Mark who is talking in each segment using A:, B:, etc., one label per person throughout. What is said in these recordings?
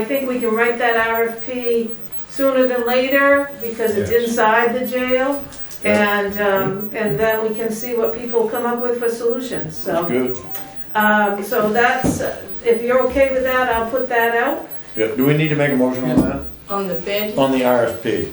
A: I think we can write that RFP sooner than later because it's
B: Yes.
A: inside the jail.
B: Yeah.
A: And, um, and then we can see what people come up with for solutions,
B: That's
A: so.
B: good.
A: Um, so that's, if you're okay with that, I'll put that out.
B: Yeah, do we need to make a motion on that?
C: On the bid,
B: On the RFP?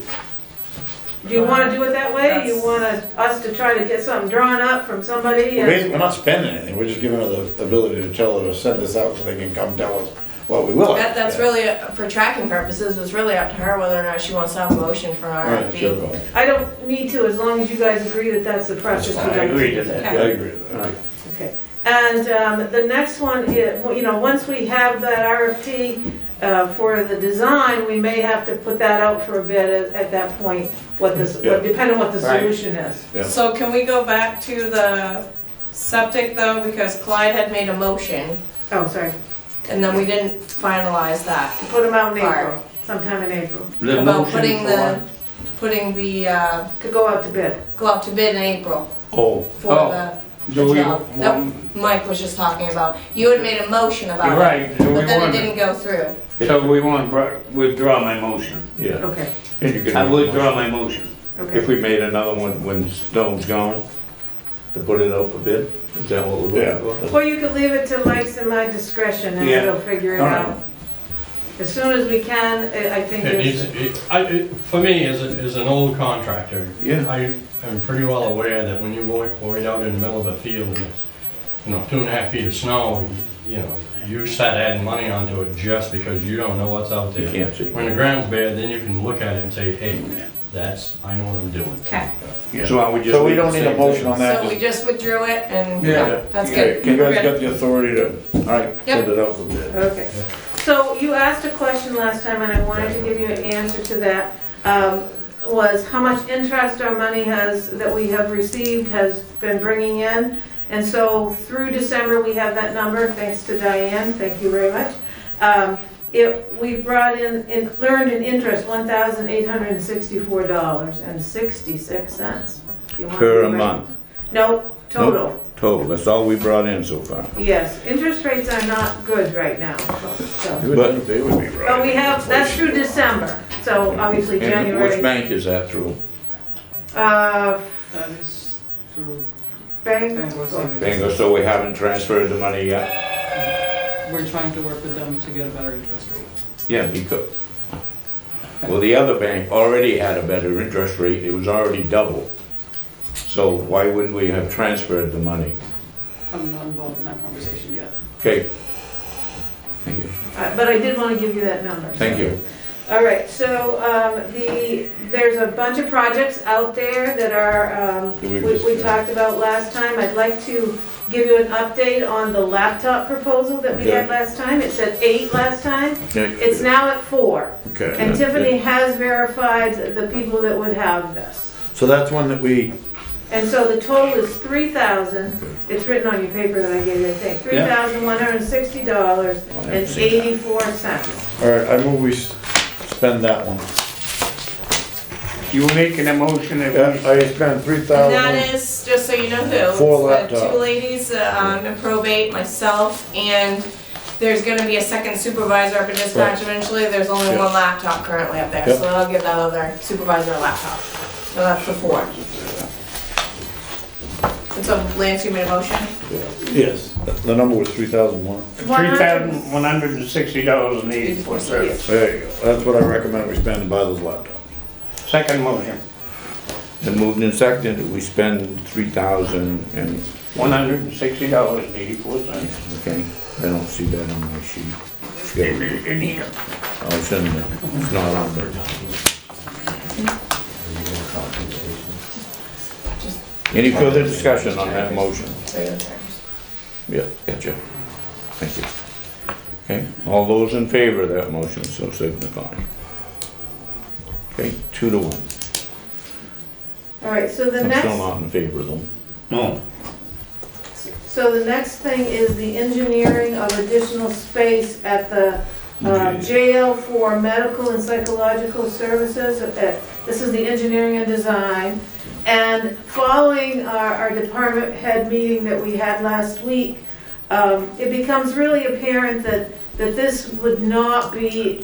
A: Do you wanna do it that way? You
C: That's-
A: wanna us to try to get something drawn up from somebody?
B: We're
A: and-
B: basically, we're not spending anything, we're just giving her the ability to tell her to send this out so they can come tell us what we will.
C: that, that's really, uh, for tracking purposes, it's really up to her whether or not she wants to have a motion for
B: All
C: an
B: right, sure,
C: RFP.
B: go.
A: I don't need to, as long as you guys agree that that's the process.
B: That's fine.
A: we're
D: I agree
A: going
D: to that.
B: Yeah, I
A: Okay.
B: agree with that.
A: Okay, and um, the next one, is- well, you know, once we have that RFP uh, for the design, we may have to put that out for a bid at- at that point, what this,
B: Yeah.
A: depending on what the
D: Right.
A: solution is.
B: Yeah.
C: So can we go back to the septic though, because Clyde had made a motion,
A: Oh, sorry,
C: and then we didn't finalize that.
A: put them out in
C: Fire.
A: April, sometime in April,
D: The
C: About
D: motion
C: putting
D: for
C: the, putting the, uh,
A: could go out to bid.
C: go out to bid in April
B: Oh,
C: for
D: Oh.
C: the,
D: Do we,
C: job.
D: want-
C: Mike was just talking about. You had made a motion
D: you're
C: about it,
D: right, do
C: but
D: we
C: then it
D: want,
C: didn't go through.
D: so we want to withdraw my motion.
E: Yeah,
A: Okay,
E: and you can.
D: I withdraw my motion.
A: okay.
E: If we made another one when Stone's gone, to put it out for bid, is that what we're
B: yeah.
E: looking for?
A: Well, you could leave it to Mike's and my discretion, and
D: Yeah.
A: we'll figure it
D: All right.
A: out. As soon as we can, I I think
F: It needs,
A: it's,
F: it, I, it, for me, as, a- as an old contractor,
B: Yeah.
F: I am pretty well aware that when you work, work out in the middle of a field and it's, you know, two and a half feet of snow, you- you know, you start adding money onto it just because you don't know what's out there.
E: You can't see.
F: When the ground's bare, then you can look at it and say, hey, that's, I know what I'm doing.
C: Okay,
E: So I would just.
B: So we
E: leave the
B: don't need a
E: same
B: motion
E: thing?
B: on that?
C: so we
B: just-
C: just withdrew it and,
D: Yeah.
C: yeah, that's
B: Okay, You
C: good. We're
B: guys
C: good.
B: got the authority to, all right, send it out for bid.
A: okay. So you asked a question last time, and I wanted to give you an answer to that, um, was how much interest our money has, that we have received, has been bringing in. And so through December, we have that number, thanks to Diane, thank you very much. Um, It, we brought in, in- learned in interest, $1,864.66. You want
E: Per
A: to-
E: a month,
A: No, total,
E: total, that's all we brought in so far.
A: yes. Interest rates are not good right now, so.
B: You would think They would be right.
A: But we have, that's through December, so obviously
E: And which
A: January.
E: bank is that through?
A: Uh,
G: That is through
A: bank, uh,
G: Bangor Savings.
E: Bingo, so we haven't transferred the money yet?
G: We're trying to work with them to get a better interest rate.
E: Yeah, because, well, the other bank already had a better interest rate, it was already double. So why wouldn't we have transferred the money?
G: I'm not involved in that conversation yet.
E: Okay. Thank you.
A: uh, but I did want to give you that number.
E: Thank you.
A: All right, so, um, the, there's a bunch of projects out there that are, um,
B: Did
A: we,
B: we
A: we
B: just-
A: talked about last time. I'd like to give you an update on the laptop proposal that we had
B: Okay.
A: last time. It said eight last time. It's
B: Okay.
A: now at four.
B: Okay.
A: And Tiffany has verified the people that would have this.
B: So that's one that we,
A: And so the total is three thousand, it's written on your paper that I gave you, I think, three thousand one hundred and sixty dollars and eighty-four cents.
B: all right, I move we s- spend that one.
D: You were making a motion
B: Yeah,
D: that we,
B: I spent three
C: And
B: thousand.
C: that is, just so you know who. it's
B: Four
C: the
B: laptops.
C: Two ladies, uh, um, in probate, myself, and there's gonna be a second supervisor up at dispatch eventually. There's only
B: Yeah.
C: one laptop currently up there,
B: Yeah.
C: so I'll give that other supervisor a laptop. So that's the four. And so Lance, you made a motion?
B: Yes, the number was three thousand one.
D: three thousand one hundred and sixty dollars and eighty-four cents.
B: There you go, that's what I recommend we spend to buy those laptops.
D: Second motion,
E: The moved and seconded, that we spend three thousand and,
D: one hundred and sixty dollars and eighty-four cents.
E: okay, I don't see that on my sheet. Okay,
D: In here.
E: I'll send it, it's not on there. Any further discussion on that motion? Yeah, gotcha. Thank you. Okay, all those in favor of that motion, so signify. Okay, two to one.
A: All right, so the
E: I'm still
A: next,
E: not in favor of them.
D: No,
A: so the next thing is the engineering of additional space at the uh, jail for medical and psychological services. Uh, This is the engineering and design. And following our, our department head meeting that we had last week, um, it becomes really apparent that that this would not be